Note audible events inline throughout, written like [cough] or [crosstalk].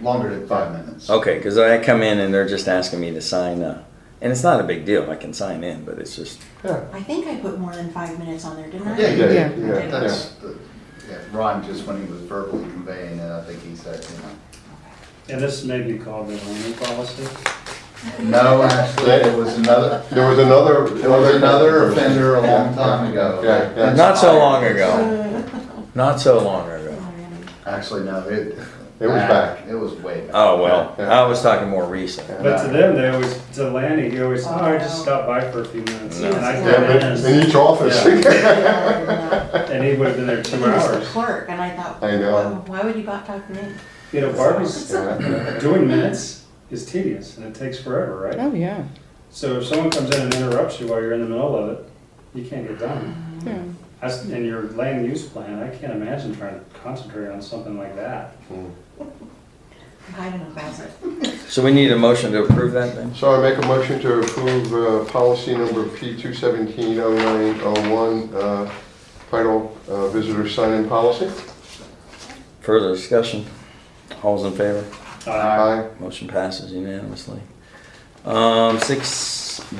longer than five minutes. Okay, because I come in and they're just asking me to sign up. And it's not a big deal. I can sign in, but it's just, Yeah, I think I put more than five minutes on there, didn't I? Yeah, you Yeah, did. yeah, That's, the- yeah, Ron, just when he was verbally conveying it, I think he said, you And this may be called the only policy. know. No, actually, it was another, there was another. There was another offender a long time ago. Yeah, yeah. not so long ago. Not so long ago. [laughs] Already. Actually, no, it. It was back. It was way back. Oh, well, I was talking more recent. But to them, they always, to Lanny, he always, oh, I just stopped by for a few minutes. No. And I Yeah, came but in, in each office. [laughs] Yeah, and he would've been there I don't two know. It was the hours. clerk, and I thought, I know. why why would you bot talk to me? You know, Barbie's, Yeah. doing minutes is tedious, and it takes forever, right? Oh, yeah. So if someone comes in and interrupts you while you're in the middle of it, you can't get done. yeah. I s- And your land use plan, I can't imagine trying to concentrate on something like that. I'm hiding in a closet. So we need a motion to approve that then? So I make a motion to approve uh, policy number P two seventeen oh nine oh one, title uh, visitor sign-in policy. Further discussion? All's in favor? Uh, Aye. Motion passes unanimously. Um, six Do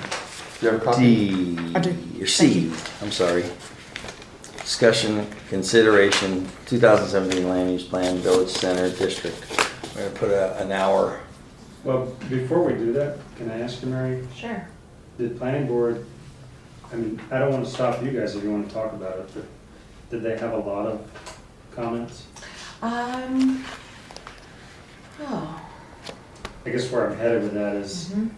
you have a copy? D. I do. Or Thank C, you. I'm sorry. Discussion, consideration, 2017 land use plan, village center district. We're gonna put a, an hour. Well, before we do that, can I ask you, Mary, Sure. did planning board, I mean, I don't wanna stop you guys if you wanna talk about it, but did they have a lot of comments? Um, oh, I guess where I'm headed with that is, mhm.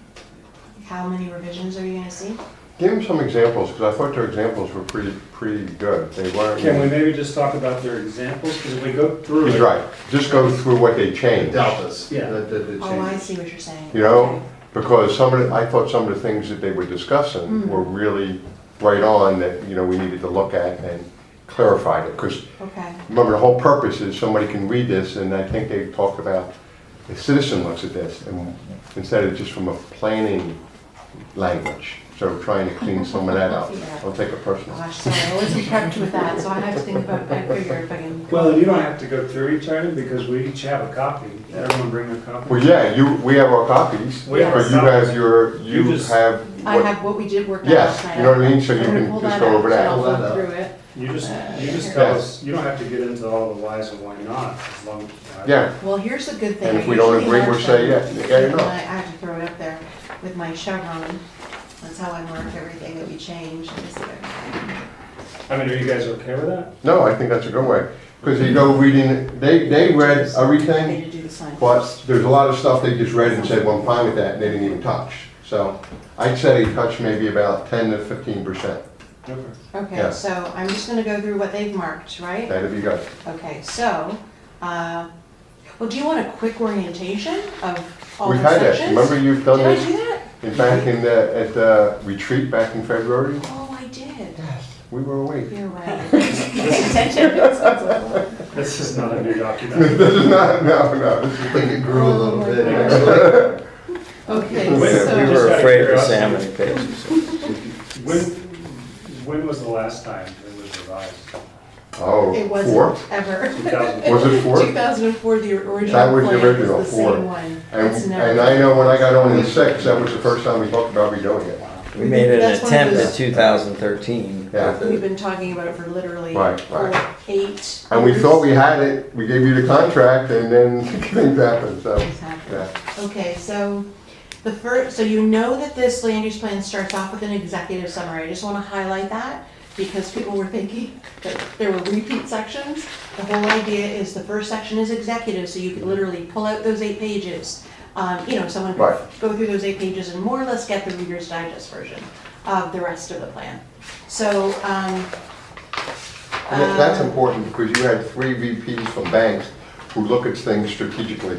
how many revisions are you gonna see? Give them some examples, because I thought their examples were pretty, pretty good. They weren't. can we maybe just talk about their examples, cause if we go through it. He's right. Just go through what they changed. Deltas. Yeah. The, the, the Oh, I changes. see what you're saying. You know, because some of the, I thought some of the things that they were Mm. discussing were really right on that, you know, we needed to look at and clarify it. Because Okay, remember, the whole purpose is somebody can read this and I think they talked about, the citizen looks at this and instead of just from a planning language. So trying to clean some of that up. Yeah. Don't take it personal. Oh, gosh, sorry, I wasn't prepped with that, so I have to think about, I figure if I can. Well, and you don't have to go through each item because we each have a copy. Everyone bring a copy? Well, yeah, you, we have our copies, or We you have our have copies. your, you You just- have. I what- have what we did work on last Yes, night. you know what I mean, so you I'm gonna can pull just that go up, over so that. I'll Pull that look up. through it. You just, you Yeah. just tell us, you don't have to get into all the whys and why not, as long as. Yeah, Well, here's a good thing. And if I we don't usually agree, we'll have say them. yes. Yeah, you know. I I have to throw it up there with my Chevron. That's how I mark everything that we change. is there. I mean, are you guys okay with that? no, I think that's a good way, because they go reading, they, they read They everything, did do the sign but first. there's a lot of stuff they just read and said, well, I'm fine with that, and they didn't even touch. So I'd say touch maybe about ten to fifteen percent, Okay. Okay, yeah. so I'm just gonna go through what they've marked, right? that'd be good. Okay, so, uh, well, do you want a quick orientation of all We've the had sections? that, remember you've done Did I do this that? in back in the, at the retreat back in February? Oh, I did. We were awake. You're right. Pay attention. This is not a [laughs] new document. This is not, [laughs] no, no, I think it grew a little bit, [laughs] actually. this Okay, We Wait, so. just were out of afraid to curiosity. say how many pages. When, when was the last time it was revised? is, oh, It four? wasn't ever. 2004. Was it four? 2004, the original That was the plan original, was the four. same one. And, It's never- and I know when I got on in six, that was the first time we talked about redoing it. We made an That's one of attempt at those- 2013. Yeah. We've been talking about it for literally Right, four, right. eight. And we years. thought we had it, we gave you the contract, and then [laughs] things happened, so, Things happened. yeah. Okay, so the first, so you know that this land use plan starts off with an executive summary. I just want to highlight that because people were thinking that there were repeat sections. The whole idea is the first section is executive, so you could literally pull out those eight pages. Um, you know, someone Right. could go through those eight pages and more or less get the Reader's Digest version of the rest of the plan. So, um, And that- that's um, important, because you had three VPs from banks who look at things strategically.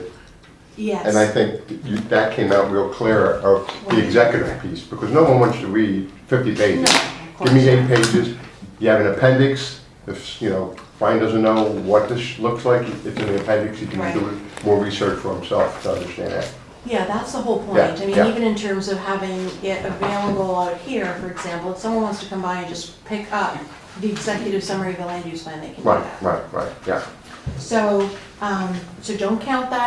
Yes. And I think you- that came out real clear, of the executive piece, because no one wants to read 50 No, pages. of Give me course. eight pages, you have an appendix, if, you know, Brian doesn't know what this looks like, it's in the appendix, he can Right. do more research for himself to understand that. Yeah, that's the whole point. Yeah, I mean, yeah. even in terms of having it available out here, for example, if someone wants to come by and just pick up the executive summary of the land use plan, they can do Right, that. right, right, yeah. So, um, so don't count that